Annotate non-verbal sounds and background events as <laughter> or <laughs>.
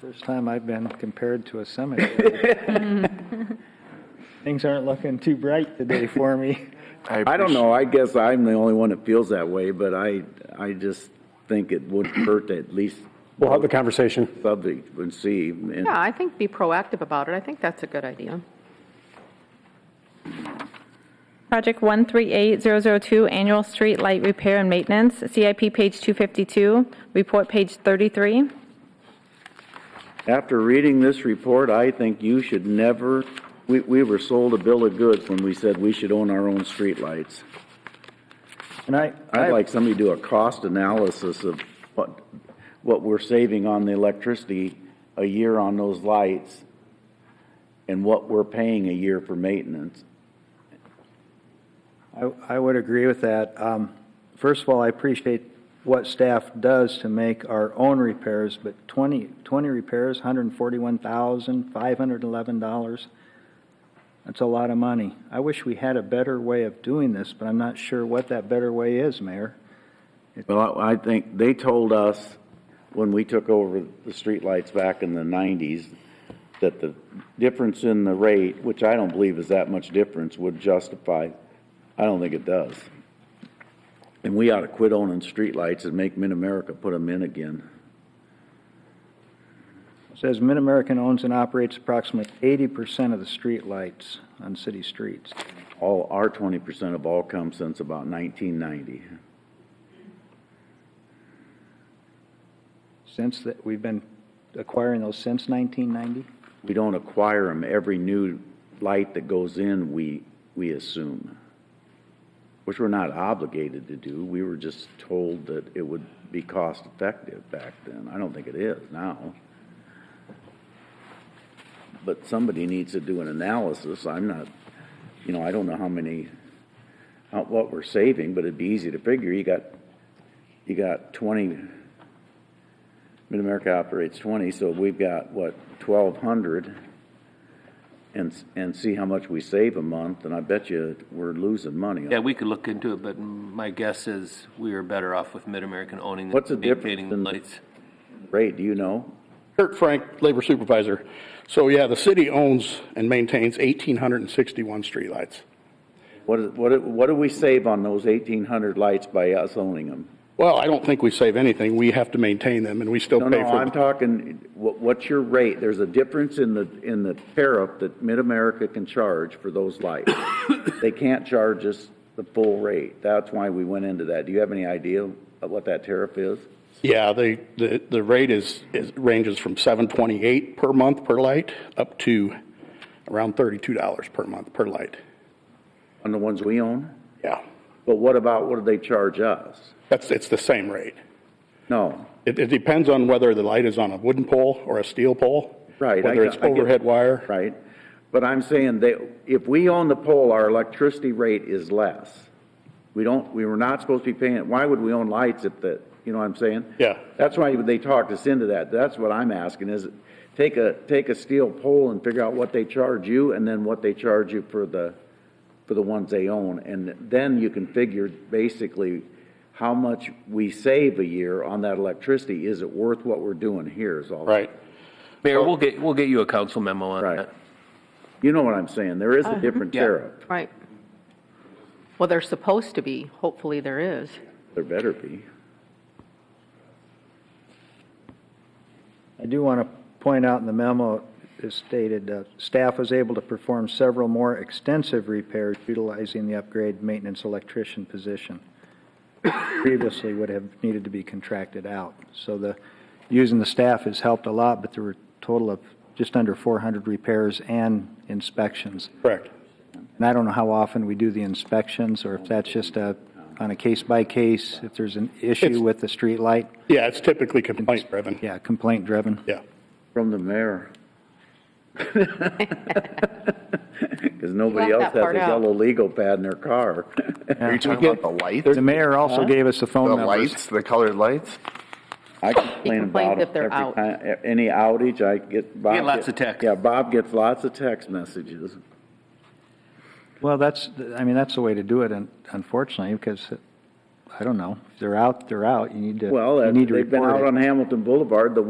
First time I've been compared to a cemetery. Things aren't looking too bright today for me. I don't know, I guess I'm the only one that feels that way, but I, I just think it would <coughs> hurt to at least We'll have the conversation. subject and see. and- Yeah, I think be proactive about it. I think that's a good idea. Project 138002, Annual Street Light Repair and Maintenance, CIP page 252, report page 33. After reading this report, I think you should never, we, we were sold a bill of goods when we said we should own our own streetlights. And I, I'd I, like somebody to do a cost analysis of what, what we're saving on the electricity a year on those lights and what we're paying a year for maintenance. I- I would agree with that. Um, First of all, I appreciate what staff does to make our own repairs, but 20, 20 repairs, $141,511. That's a lot of money. I wish we had a better way of doing this, but I'm not sure what that better way is, Mayor. Well, I I think they told us when we took over the streetlights back in the nineties that the difference in the rate, which I don't believe is that much difference, would justify, I don't think it does. And we ought to quit owning streetlights and make Mid-America put them in again. Says Mid-American owns and operates approximately 80% of the streetlights on city streets. All, our twenty percent of all come since about nineteen ninety. Since that, we've been acquiring those since 1990? We don't acquire them. Every new light that goes in, we, we assume. Which we're not obligated to do. We were just told that it would be cost effective back then. I don't think it is now. But somebody needs to do an analysis. I'm not, you know, I don't know how many, how, what we're saving, but it'd be easy to figure. You got, you got twenty, Mid-America operates twenty, so we've got, what, twelve hundred? And, s- and see how much we save a month, and I bet you we're losing money. Yeah, we could look into it, but my guess is we are better off with Mid-American owning What's the and difference maintaining the in- lights. Ray, do you know? Kurt Frank, Labor Supervisor. So yeah, the city owns and maintains 1,861 streetlights. What, is- what, do- what do we save on those eighteen hundred lights by us owning them? Well, I don't think we save anything. We have to maintain them, and we still No, pay no, for I'm them. talking, what, what's your rate? There's a difference in the, in the tariff that Mid-America can charge for those lights. They can't charge us the full rate. That's why we went into that. Do you have any idea of what that tariff is? Yeah, the, the, the rate is, is, ranges from 728 per month per light up to around $32 per month per light. On the ones we own? Yeah, But what about, what do they charge us? that's, it's the same rate. No, It, it depends on whether the light is on a wooden pole or a steel pole. right. I Whether it's get- I get- overhead wire. Right. But I'm saying that if we own the pole, our electricity rate is less. We don't, we were not supposed to be paying, it. why would we own lights if the, you know what I'm saying? Yeah. That's why they talked us into that. That's what I'm asking is, take a, take a steel pole and figure out what they charge you and then what they charge you for the, for the ones they own. And then you can figure basically how much we save a year on that electricity. Is it worth what we're doing here is all. Right. Mayor, we'll get, we'll get you a council memo on Right. that. You know what I'm saying? There is a Uh-huh. different Yeah. tariff. Right. Well, they're supposed to be. Hopefully there is. There better be. I do want to point out in the memo, it stated, uh, staff was able to perform several more extensive repairs utilizing the upgrade maintenance electrician position. Previously would have needed to be contracted out. So the, using the staff has helped a lot, but there were a total of just under 400 repairs and inspections. Correct. And I don't know how often we do the inspections, or if that's just a, on a case-by-case, if there's an issue It's- with the street light, Yeah, it's typically complaint driven. yeah, complaint-driven. Yeah. From the mayor. <laughs> Because nobody else Left that has a part out. yellow legal pad in their <laughs> car. Are you talking about the lights? The mayor also gave us the phone The numbers. lights, the colored lights? I complain complains about it if they're every out. time, e, any outage, I get. Bob get lots get- of texts. Yeah, Bob gets lots of text messages. Well, that's, I mean, that's the way to do it, un- unfortunately, because, I don't know, if they're out, they're out, you need to, Well, you uh, need to they've been report out it. on Hamilton Boulevard, the